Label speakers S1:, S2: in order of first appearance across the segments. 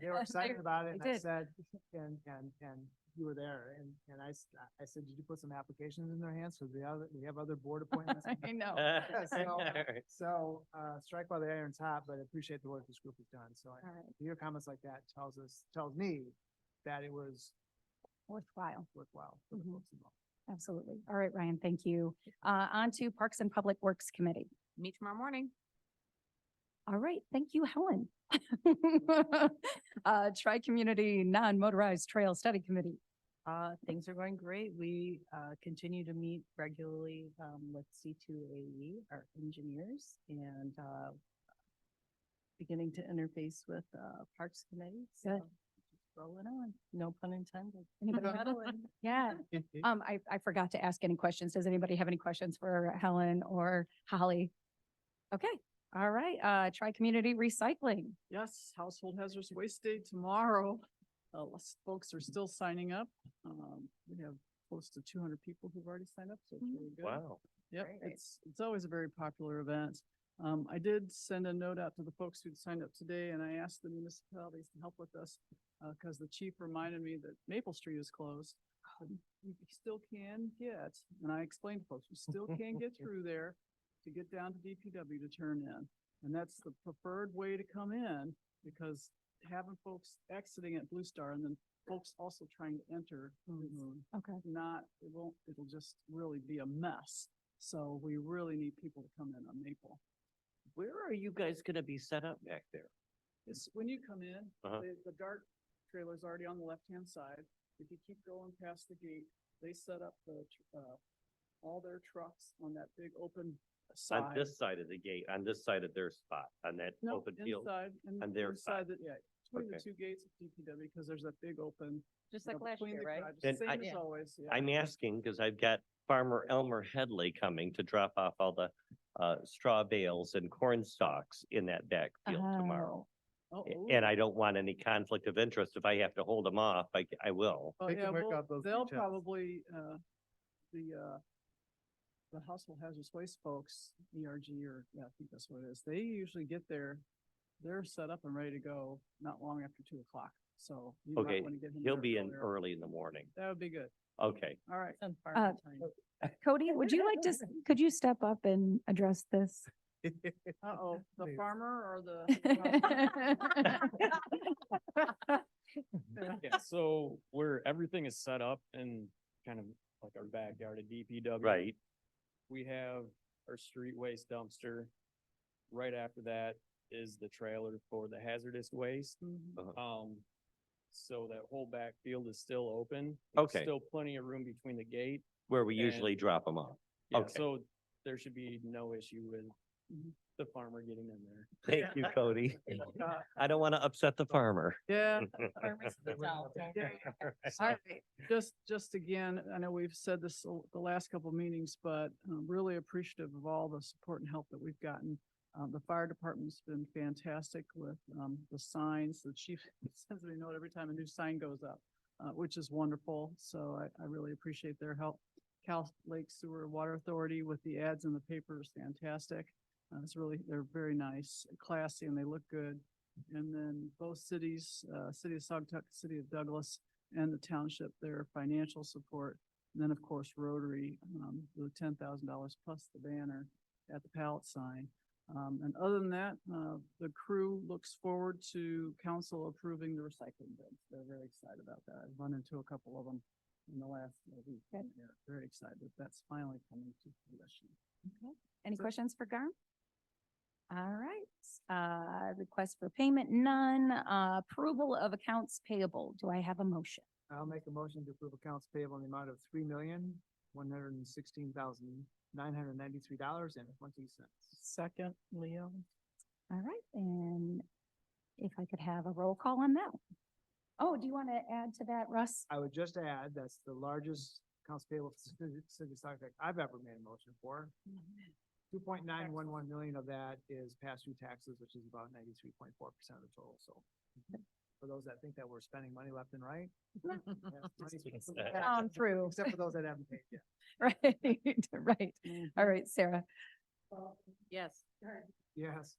S1: they were excited about it and
S2: They
S1: I
S2: did.
S1: said, and, and, and you were there and, and I, s- I said, did you put some applications in their hands? Cause we have, we have other board appointments.
S2: I know.
S3: Oh,
S4: Uh,
S3: Uh,
S1: So,
S3: Alright.
S1: so, uh, strike while the iron's hot, but I appreciate the work this group has done. So I-
S2: All right,
S1: your comments like that tells us, tells me that it was
S2: worthwhile.
S1: worthwhile for the
S2: Mhm.
S1: folks involved.
S2: Absolutely. All right, Ryan, thank you. Uh, on to Parks and Public Works Committee.
S4: Meet tomorrow morning.
S2: All right, thank you, Helen. Uh, Tri-Community Non-Motorized Trail Study Committee.
S5: Uh, things are going great. We, uh, continue to meet regularly, um, with C two AE, our engineers, and, uh, beginning to interface with, uh, Parks Committee.
S2: Good.
S5: so Rolling on, no pun intended.
S2: Anybody?
S5: Meddling.
S2: Yeah, um, I, I forgot to ask any questions. Does anybody have any questions for Helen or Holly? Okay, all right, uh, Tri-Community Recycling.
S6: Yes, Household Hazardous Waste Day tomorrow. Uh, lots of folks are still signing up. Um, we have close to two hundred people who've already signed up, so it's
S2: Mhm.
S6: really good.
S3: Wow.
S6: Yep,
S2: Great.
S6: it's, it's always a very popular event. Um, I did send a note out to the folks who'd signed up today and I asked the municipalities to help with this. Uh, cause the chief reminded me that Maple Street is closed. but You still can get, and I explained to folks, you still can get through there to get down to DPW to turn in. And that's the preferred way to come in because having folks exiting at Blue Star and then folks also trying to enter is
S2: Okay.
S6: not, it won't, it'll just really be a mess. So we really need people to come in on Maple.
S3: Where are you guys gonna be set up back there?
S6: It's, when you come in,
S3: Uh-huh.
S6: the, the dark trailer's already on the left-hand side. If you keep going past the gate, they set up the, tr- uh, all their trucks on that big open side.
S3: On this side of the gate, on this side of their spot, on that
S6: No,
S3: open field?
S6: inside, and
S3: on their
S6: inside,
S3: side.
S6: the- yeah, between the
S3: Okay.
S6: two gates of DPW, because there's that big open.
S4: Just
S6: you
S4: like
S6: know,
S4: last
S6: between
S4: year,
S6: the
S4: right?
S6: garages.
S3: And
S6: Same
S3: I-
S6: as always, yeah.
S3: I'm asking because I've got farmer Elmer Headley coming to drop off all the uh straw bales and corn stalks in that backfield tomorrow.
S6: Oh,
S3: A-
S6: ooh.
S3: And I don't want any conflict of interest. If I have to hold them off, I c- I will.
S6: Oh,
S1: They can
S6: yeah,
S1: work
S6: well,
S1: out those
S6: They'll
S1: details.
S6: probably, uh, the, uh, the household hazardous waste folks, ERG or, yeah, I think that's what it is. They usually get there. They're set up and ready to go not long after two o'clock. So you
S3: Okay,
S6: might want to get him.
S3: He'll
S6: there
S3: be in
S6: earlier.
S3: early in the morning.
S6: That would be good.
S3: Okay.
S6: All right.
S5: It's on farm
S2: Uh,
S5: time.
S2: Cody, would you like to, s- could you step up and address this?
S6: Uh-oh, the
S1: Please.
S6: farmer or the?
S2: Okay,
S7: Yeah, so where everything is set up in kind of like our backyard at DPW.
S3: Right,
S7: We have our street waste dumpster. Right after that is the trailer for the hazardous waste.
S6: Mhm.
S7: Um, so that whole backfield is still open. There's
S3: Okay.
S7: Still plenty of room between the gate.
S3: where we
S7: And-
S3: usually drop them off.
S7: Yeah,
S3: Okay.
S7: So there should be no issue with the farmer getting in there.
S3: Thank you, Cody. I don't want to upset the farmer.
S6: Yeah,
S5: Farmers to the south, don't worry.
S6: All right, just, just again, I know we've said this the the last couple of meetings, but um, really appreciative of all the support and help that we've gotten. Um, the fire department's been fantastic with, um, the signs, the chief sends me a note every time a new sign goes up, uh, which is wonderful, so I, I really appreciate their help. Cal Lake Sewer Water Authority with the ads in the paper is fantastic. Uh, it's really, they're very nice, classy, and they look good. And then both cities, uh, City of Saugatuck, City of Douglas, and the township their financial support. And then, of course, Rotary, um, the ten thousand dollars plus the banner at the pallet sign. Um, and other than that, uh, the crew looks forward to council approving the recycling bins. They're very excited about that. I've run into a couple of them in the last uh, week.
S2: Good.
S6: and They're very excited. that That's finally coming to fruition.
S2: Any questions for Garm? All right, uh, request for payment, none, uh, approval of accounts payable. Do I have a motion?
S1: I'll make a motion to approve accounts payable in the amount of three million, one hundred and sixteen thousand, nine hundred and ninety-three dollars and twenty cents.
S5: Second, Leo.
S2: All right, and if I could have a roll call on that. one. Oh, do you want to add to that, Russ?
S1: I would just add, that's the largest accounts payable for city- city of Sagatuck I've ever made a motion for. Two point nine one one million of that is past due taxes, which is about ninety-three point four percent of the total, so. For those that think that we're spending money left and right. that's money-
S2: On Um, through,
S1: Except for those that haven't paid yet.
S2: right, right. All right, Sarah.
S4: Yes.
S1: Yes.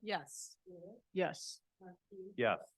S5: Yes.
S6: Yes.
S3: Yes.